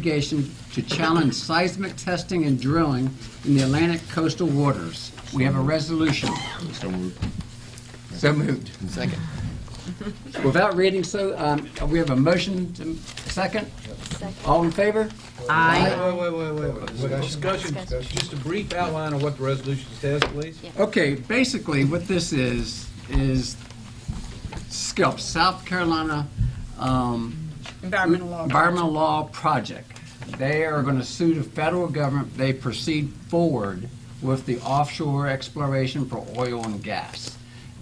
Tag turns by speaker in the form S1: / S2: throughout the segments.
S1: litigation to challenge seismic testing and drilling in the Atlantic coastal waters. We have a resolution.
S2: So moved.
S1: So moved.
S3: Second.
S1: Without reading so, um, we have a motion to, second? All in favor?
S4: Aye.
S5: Wait, wait, wait, wait, wait. Discussion, just a brief outline of what the resolution says, please.
S1: Okay, basically what this is, is SCUP, South Carolina um,
S4: Environmental law.
S1: Environmental Law Project. They are going to sue the federal government. if They proceed forward with the offshore exploration for oil and gas.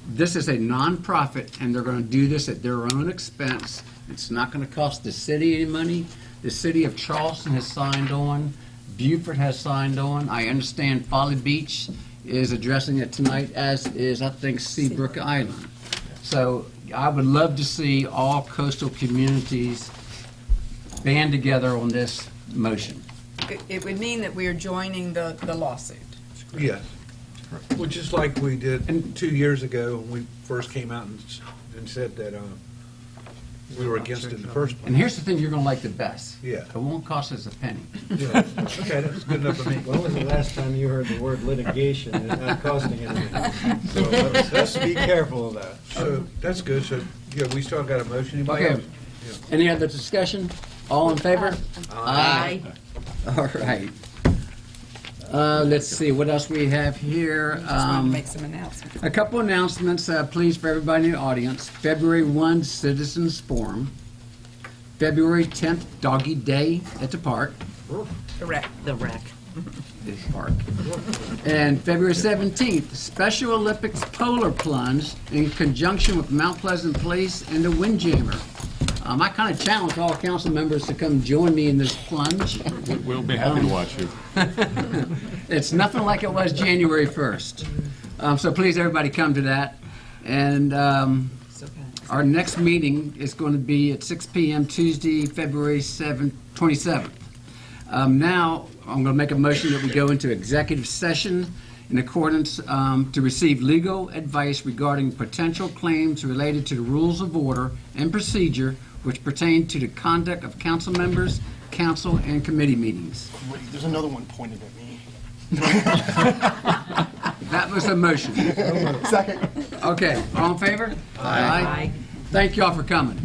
S1: This is a nonprofit, and they're going to do this at their own expense. It's not going to cost the city any money. The city of Charleston has signed on. Beaufort has signed on. I understand Folly Beach is addressing it tonight, as is, I think, Seabrook Island. So I would love to see all coastal communities band together on this motion.
S4: It- It would mean that we are joining the, the lawsuit.
S5: Yes. Well, just like we did two years ago, when we first came out and, s- and said that, um, we were against it in the first
S1: And
S5: place.
S1: here's the thing you're going to like the best.
S5: Yeah.
S1: It won't cost us a penny.
S5: Yeah. Okay, that's good enough for me.
S6: When was the last time you heard the word litigation and it not costing anything? So let's, let's be careful of that.
S5: So, that's good, so, yeah, we still got a motion, anybody
S1: Okay.
S5: else?
S1: Any other discussion? All in favor? Aye. All right. Uh, Let's see, what else we have here?
S4: Just wanted to
S1: Um,
S4: make some announcements.
S1: A couple announcements, uh, please, for everybody in the audience. February 1, Citizens Forum. February 10th, Doggy Day at the park.
S4: Correct.
S7: The wreck.
S1: this park. And February 17th, Special Olympics Polar Plunge in conjunction with Mount Pleasant Place and the Windjammer. Um, I kind of challenge all council members to come join me in this plunge.
S2: We- We'll be happy to watch you.
S1: It's nothing like it was January 1st. Um, so please, everybody, come to that. And, um,
S4: It's okay.
S1: Our next meeting is going to be at 6 PM Tuesday, February 7th, 27th. Um, Now, I'm going to make a motion that we go into executive session in accordance um, to receive legal advice regarding potential claims related to the rules of order and procedure which pertain to the conduct of council members, council, and committee meetings.
S8: Wait, there's another one pointed at me.
S1: That was the motion.
S8: Second.
S1: Okay, all in favor? Aye. Thank you all for coming.